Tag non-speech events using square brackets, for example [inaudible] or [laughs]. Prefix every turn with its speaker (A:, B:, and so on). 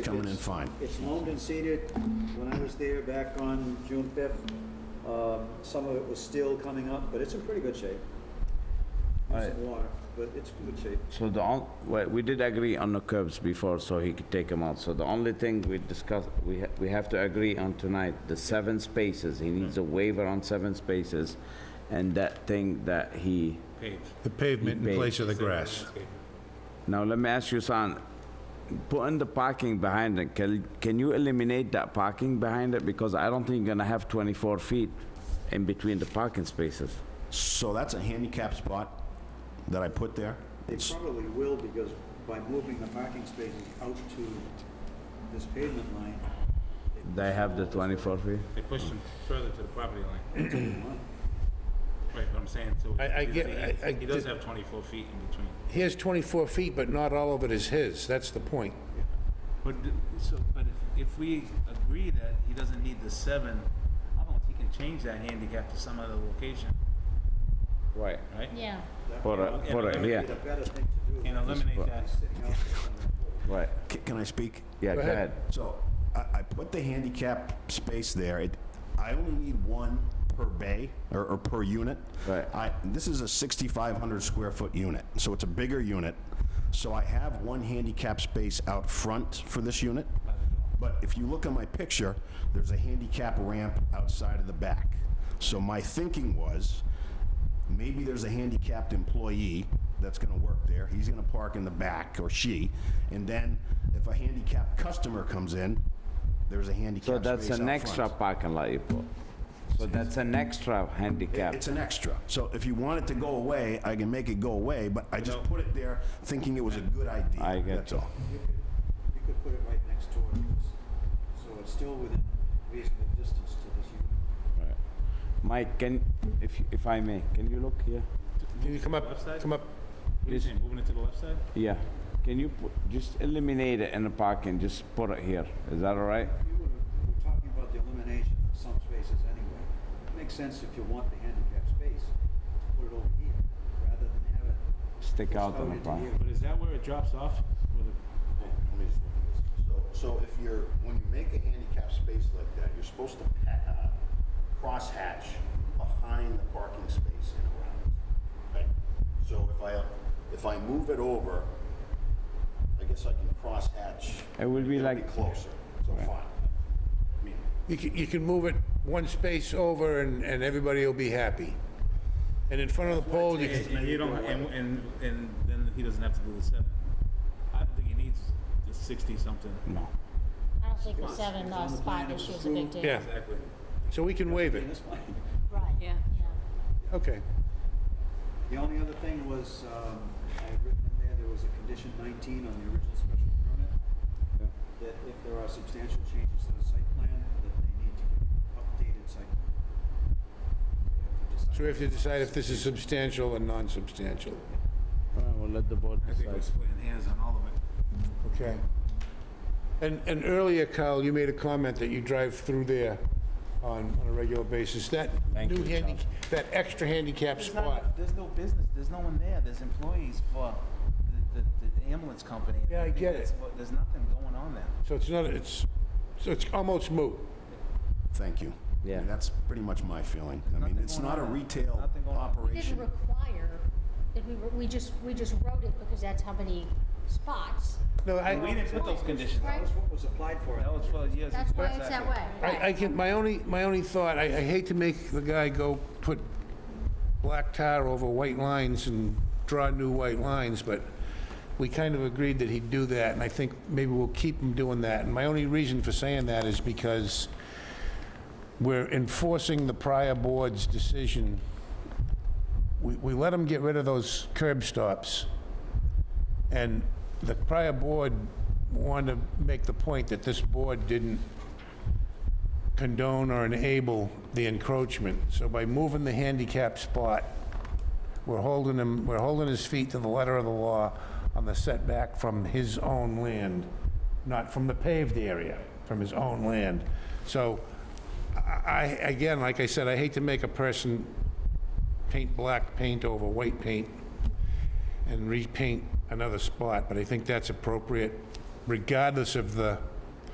A: coming in fine.
B: It's loamed and seeded. When I was there back on June fifth, uh, some of it was still coming up, but it's in pretty good shape. There's some water, but it's in good shape.
C: So the, on- well, we did agree on the curbs before, so he could take them out. So the only thing we discussed, we, ha- we have to agree on tonight, the seven spaces, he needs a waiver on seven spaces, and that thing that he,
D: The pavement in place of the grass.
C: now let me ask you, son, putting the parking behind it, can, can you eliminate that parking behind it? Because I don't think you're gonna have 24 feet in between the parking spaces.
A: So that's a handicap spot that I put there.
B: They
A: It's,
B: probably will because by moving the parking spaces out to this pavement line,
C: They have the 24 feet?
E: They pushed him further to the property [clears throat] line. Right, but I'm saying, so.
D: I- I
E: he's-
D: get- I- I
E: He does
D: did-
E: have 24 feet in between.
D: He has 24 feet, but not all of it is his. That's the point.
E: But, d- so, but if, if we agree that he doesn't need the seven, I don't know if he can change that handicap to some other location,
C: Right.
E: right?
F: Yeah,
C: For, a- for, a- yeah,
B: it'd be the better thing to do.
E: And eliminate that.
B: Sitting out there on the-
C: right.
A: c- can I speak?
C: Yeah, go
D: ahead.
C: ahead.
A: So I, I put the handicap space there. It, I only need one per bay or, or per unit.
C: Right.
A: I, this is a 6,500 square foot unit, so it's a bigger unit. So I have one handicap space out front for this unit. But if you look at my picture, there's a handicap ramp outside of the back. So my thinking was, maybe there's a handicapped employee that's gonna work there, he's gonna park in the back, or she, and then if a handicapped customer comes in, there's a
C: So
A: handicapped
C: that's
A: space
C: an
A: out
C: extra
A: front.
C: parking lot you put. So that's an extra handicap.
A: It's an extra, so if you want it to go away, I can make it go away, but I just put it there thinking it was a good idea.
C: I get
A: That's
C: you.
A: all.
B: You could, you could put it right next door to this, so it's still within reasonable distance to this unit.
C: Right. Mike, can, if, if I may, can you look here?
D: Can you come
E: Left
D: up,
E: side?
D: come up?
E: What are you saying, moving it to the left side?
C: Yeah. Can you put, just eliminate it in the parking, just put it here. Is that all right?
B: You were, we're talking about the elimination of some spaces anyway. It Makes sense if you want the handicap space, put it over here, rather than have it.
C: Stick
B: pushed
C: out in the
B: into
C: front.
B: here.
E: But is that where it drops off? Where the-
A: So, so if you're, when you make a handicap space like that, you're supposed to pa- uh, crosshatch behind the parking space and around it. Right? So if I, if I move it over, I guess I can crosshatch.
C: It will be
A: It'll
C: like-
A: Closer, so fine. I mean,
D: You can, you can move it one space over and, and everybody will be happy. And in front of the pole, you
E: And
D: can,
E: and you don't, and, and, and then he doesn't have to do the seven. I don't think he needs the 60-something.
C: No.
F: I don't think the seven uh, spot issue is a big deal.
D: yeah,
E: Exactly.
D: so we can waive
B: And
D: it.
B: [laughs] that's fine.
F: Right, yeah.
D: Okay.
B: The only other thing was, um, I had written in there, there was a condition nineteen on the original special permit, that if there are substantial changes to the site plan, that they need to give updated site plan.
D: So we have to decide if this is substantial and non-substantial.
C: All right, we'll let the board
E: I think we're
C: decide.
E: splitting hairs on all of it.
D: Okay. And, and earlier, Kyle, you made a comment that you drive through there on, on a regular basis. That
C: Thank
D: new
C: you, John.
D: handicap, that extra handicap
G: There's
D: spot.
G: not, there's no business, there's no one there, there's employees for the, the, the ambulance company.
D: Yeah, I
G: think
D: get
G: that's
D: it.
G: what- There's nothing going on there.
D: So it's not, it's, so it's almost moot.
A: Thank you.
C: Yeah.
A: And That's pretty much my feeling. I mean,
G: Nothing
A: it's
G: going
A: not a
G: on.
A: retail
G: Nothing going on.
F: We
A: operation.
F: didn't require, that we, were- we just, we just wrote it because that's how many spots.
D: No,
G: We
D: I,
G: didn't put those conditions
F: Right.
G: on.
B: That was what was applied for.
G: That was for years.
F: That's why it's that
G: Exactly.
F: way.
D: I, I can, my only, my only thought, I, I hate to make the guy go put black tar over white lines and draw new white lines, but we kind of agreed that he'd do that, and I think maybe we'll keep him doing that. And my only reason for saying that is because we're enforcing the prior board's decision. We, we let them get rid of those curb stops. And the prior board wanted to make the point that this board didn't condone or enable the encroachment. So by moving the handicap spot, we're holding him, we're holding his feet to the letter of the law on the setback from his own land, not from the paved area, from his own land. So I, I- again, like I said, I hate to make a person paint black paint over white paint and repaint another spot, but I think that's appropriate regardless of the